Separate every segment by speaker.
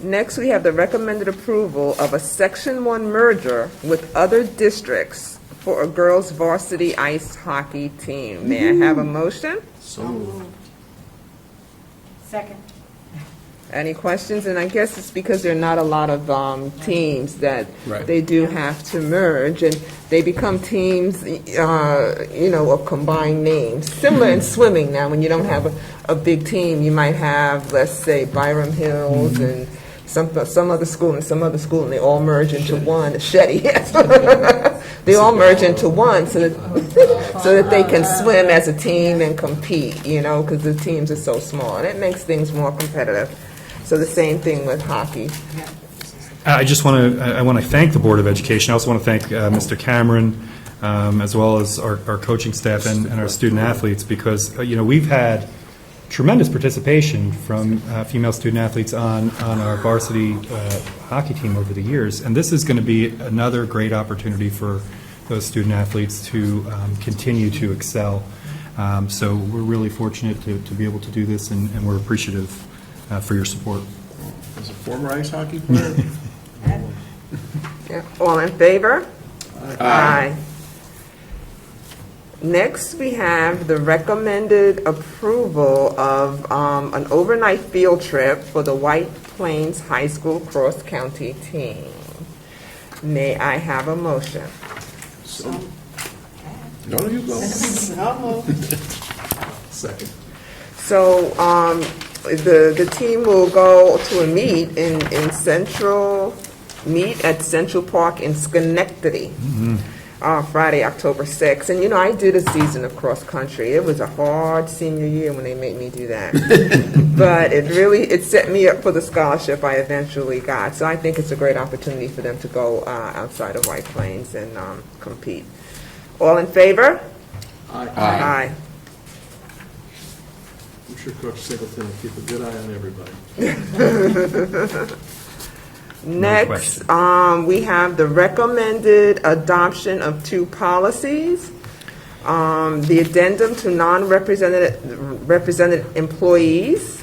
Speaker 1: Next, we have the recommended approval of a Section 1 merger with other districts for a girls varsity ice hockey team. May I have a motion?
Speaker 2: So moved.
Speaker 3: Second.
Speaker 1: Any questions? And I guess it's because there are not a lot of um, teams that
Speaker 2: Right.
Speaker 1: they do have to merge, and they become teams, uh, you know, of combined names. Similar in swimming now, when you don't have a, a big team, you might have, let's say, Byram Hills and some, some other school and some other school, and they all merge into one. Shetty, yes. They all merge into one so that, so that they can swim as a team and compete, you know, because the teams are so small. And it makes things more competitive. So the same thing with hockey.
Speaker 4: I I just want to, I want to thank the Board of Education. I also want to thank uh, Mr. Cameron, um, as well as our our coaching staff and and our student athletes, because, uh, you know, we've had tremendous participation from uh, female student athletes on, on our varsity uh, hockey team over the years, and this is going to be another great opportunity for those student athletes to um, continue to excel. Um, So we're really fortunate to, to be able to do this, and and we're appreciative uh, for your support.
Speaker 2: As a former ice hockey player,
Speaker 1: Yeah. All in favor? Aye. Next, we have the recommended approval of um, an overnight field trip for the White Plains High School cross-county team. May I have a motion?
Speaker 2: no, you go. Second.
Speaker 1: So um, the, the team will go to a meet in, in Central, meet at Central Park in Schenectady, uh, Friday, October 6th. And, you know, I did a season of cross-country. It was a hard senior year when they made me do that. But it really, it set me up for the scholarship I eventually got. So I think it's a great opportunity for them to go uh, outside of White Plains and um, compete. All in favor? Aye.
Speaker 2: I'm sure Coach Singleton will keep a good eye on everybody.
Speaker 1: Next,
Speaker 4: question.
Speaker 1: um, we have the recommended adoption of two policies. Um, the addendum to non-represented, represented employees,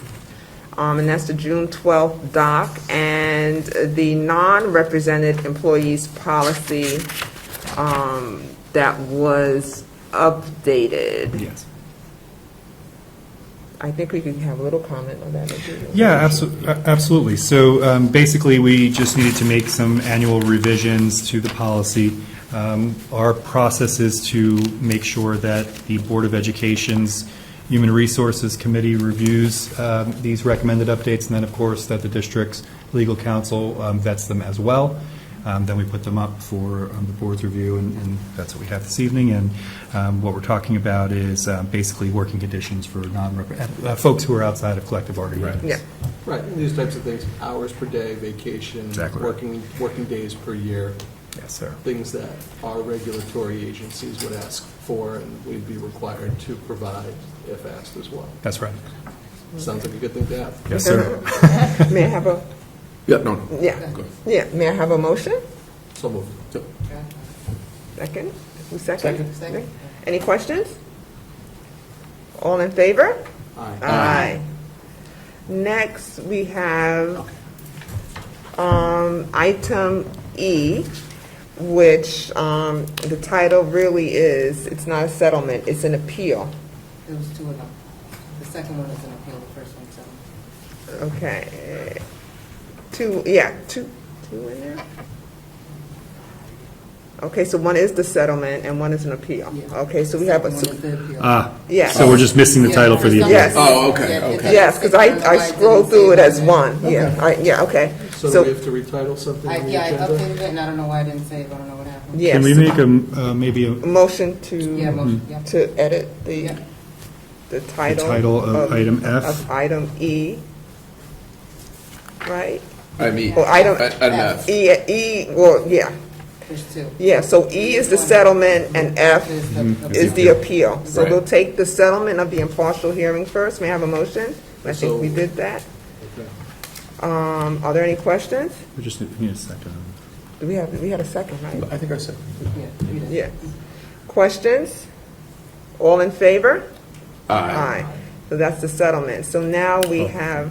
Speaker 1: um, and that's the June twelfth doc, and the non-represented employees policy, um, that was updated.
Speaker 4: Yes.
Speaker 1: I think we could have a little comment on that. if you-
Speaker 4: Yeah, abso- a- absolutely. So um, basically, we just needed to make some annual revisions to the policy. Um, Our process is to make sure that the Board of Education's Human Resources Committee reviews um, these recommended updates, and then, of course, that the district's legal counsel um, vets them as well. Um, Then we put them up for um, the board's review, and and that's what we have this evening. And um, what we're talking about is um, basically working conditions for non-representative, uh, folks who are outside of collective bargaining.
Speaker 2: Right.
Speaker 1: Yeah.
Speaker 4: units.
Speaker 5: Right, and these types of things, hours per day, vacation.
Speaker 4: Exactly right.
Speaker 5: Working, working days per year,
Speaker 4: Yes, sir.
Speaker 5: things that our regulatory agencies would ask for and we'd be required to provide if asked as well.
Speaker 4: That's right.
Speaker 5: Sounds like a good thing to have.
Speaker 4: Yes, sir.
Speaker 1: May I have a,
Speaker 2: Yeah, no.
Speaker 1: yeah, yeah, may I have a motion?
Speaker 5: So moved.
Speaker 1: Second? Who's second? Second. Any questions? All in favor?
Speaker 5: Aye.
Speaker 2: uh,
Speaker 1: Next, we have um, item E, which um, the title really is, it's not a settlement, it's an appeal.
Speaker 6: There was two of them. The second one is an appeal, the first one's a...
Speaker 1: Okay. Two, yeah, two, two in there? Okay, so one is the settlement and one is an appeal.
Speaker 6: Yeah.
Speaker 1: Okay, so we have, a
Speaker 6: The second one is the appeal.
Speaker 4: Ah,
Speaker 1: yeah.
Speaker 4: so we're just missing the
Speaker 6: Yeah,
Speaker 4: title for the.
Speaker 6: first
Speaker 1: Yes.
Speaker 6: one-
Speaker 2: Oh, okay,
Speaker 6: Yeah,
Speaker 2: okay.
Speaker 6: it's-
Speaker 1: Yes, because I, I scrolled through it as one, yeah, I, yeah, okay.
Speaker 5: So do we
Speaker 1: So,
Speaker 5: have to retitle something
Speaker 6: I-
Speaker 5: in the
Speaker 6: Yeah, I
Speaker 5: agenda?
Speaker 6: updated it, and I don't know why I didn't save, I don't know what happened.
Speaker 4: Can we
Speaker 1: yes,
Speaker 4: make a, m- uh, maybe a
Speaker 1: motion
Speaker 6: Yeah,
Speaker 1: to,
Speaker 6: motion, yeah.
Speaker 1: to edit the,
Speaker 6: Yeah.
Speaker 1: the
Speaker 4: a
Speaker 1: title.
Speaker 4: title of item F?
Speaker 1: Of item E, right?
Speaker 2: I mean,
Speaker 1: Or item,
Speaker 2: enough.
Speaker 1: E, E, well, yeah,
Speaker 6: There's two.
Speaker 1: yeah, so E is the settlement and F
Speaker 6: There's the-
Speaker 1: Mm-hmm. is the appeal. So
Speaker 2: Right.
Speaker 1: we'll take the settlement of the impartial hearing first, may I have a motion? I think we
Speaker 5: So-
Speaker 1: did that.
Speaker 5: Okay.
Speaker 1: Um, are there any questions?
Speaker 4: We just need need a second.
Speaker 1: We have, we had a second, right?
Speaker 2: I think I said.
Speaker 6: Yeah, three to-
Speaker 1: Yeah. Questions? All in favor?
Speaker 2: Aye.
Speaker 1: So that's the settlement. So now we have